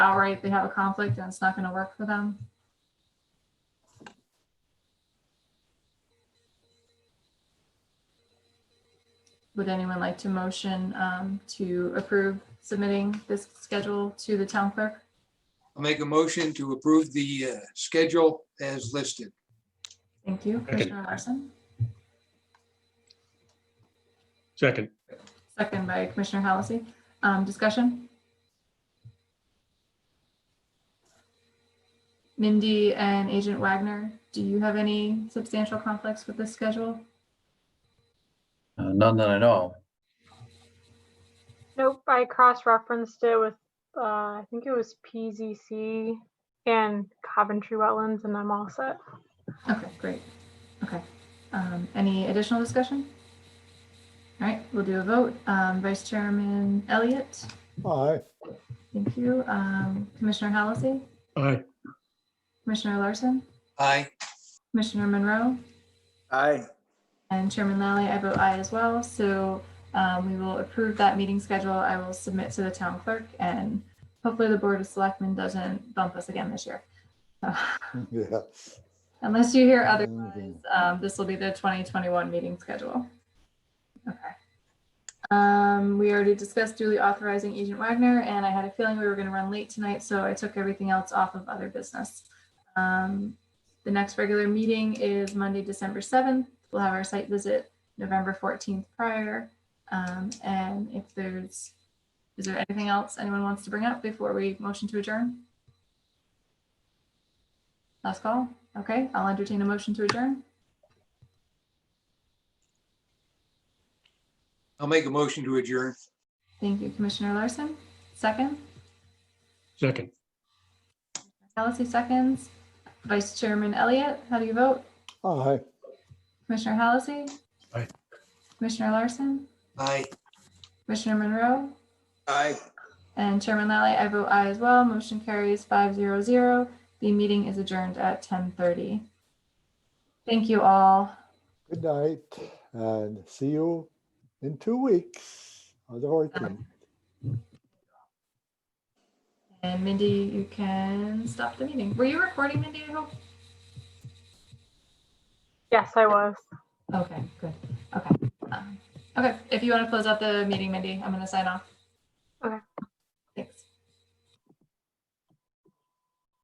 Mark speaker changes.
Speaker 1: right, they have a conflict and it's not gonna work for them. Would anyone like to motion um, to approve submitting this schedule to the town clerk?
Speaker 2: I'll make a motion to approve the uh, schedule as listed.
Speaker 1: Thank you, Commissioner Larson.
Speaker 3: Second,
Speaker 1: Second by Commissioner Halsey. Um, discussion? Mindy and Agent Wagner, do you have any substantial conflicts with this schedule?
Speaker 4: Uh, None that I know.
Speaker 5: Nope, I cross-referenced it with, uh, I think it was PZC and Coventry Wetlands, and I'm all set.
Speaker 1: Okay, great. Okay. Um, any additional discussion? All right, we'll do a vote. Um, Vice Chairman Elliott,
Speaker 6: Aye.
Speaker 1: thank you. Um, Commissioner Halsey,
Speaker 3: aye,
Speaker 1: Commissioner Larson,
Speaker 2: Aye,
Speaker 1: Commissioner Monroe,
Speaker 7: Aye.
Speaker 1: And Chairman Lally, I vote aye as well. So um, we will approve that meeting schedule. I will submit to the town clerk and hopefully the Board of Selectmen doesn't bump us again this year. So,
Speaker 6: Yeah.
Speaker 1: Unless you hear otherwise,
Speaker 6: Mhm.
Speaker 1: um, this will be the 2021 meeting schedule. Okay. Um, We already discussed duly authorizing Agent Wagner and I had a feeling we were going to run late tonight, so I took everything else off of other business. Um, the next regular meeting is Monday, December seventh. We'll have our site visit November fourteenth prior. Um, and if there's, is there anything else anyone wants to bring up before we motion to adjourn? Last call. Okay, I'll entertain a motion to adjourn.
Speaker 2: I'll make a motion to adjourn.
Speaker 1: Thank you, Commissioner Larson. Second,
Speaker 3: second,
Speaker 1: Halsey seconds. Vice Chairman Elliott, how do you vote?
Speaker 6: Aye.
Speaker 1: Commissioner Halsey?
Speaker 3: Aye.
Speaker 1: Commissioner Larson?
Speaker 2: Aye.
Speaker 1: Commissioner Monroe?
Speaker 7: Aye.
Speaker 1: And Chairman Lally, I vote aye as well. Motion carries five zero zero. The meeting is adjourned at ten thirty. Thank you all.
Speaker 6: Good night and see you in two weeks on the fourteenth.
Speaker 1: And Mindy, you can stop the meeting. Were you recording, Mindy, I hope?
Speaker 5: Yes, I was.
Speaker 1: Okay, good. Okay. Um, Okay, if you want to close out the meeting, Mindy, I'm going to sign off.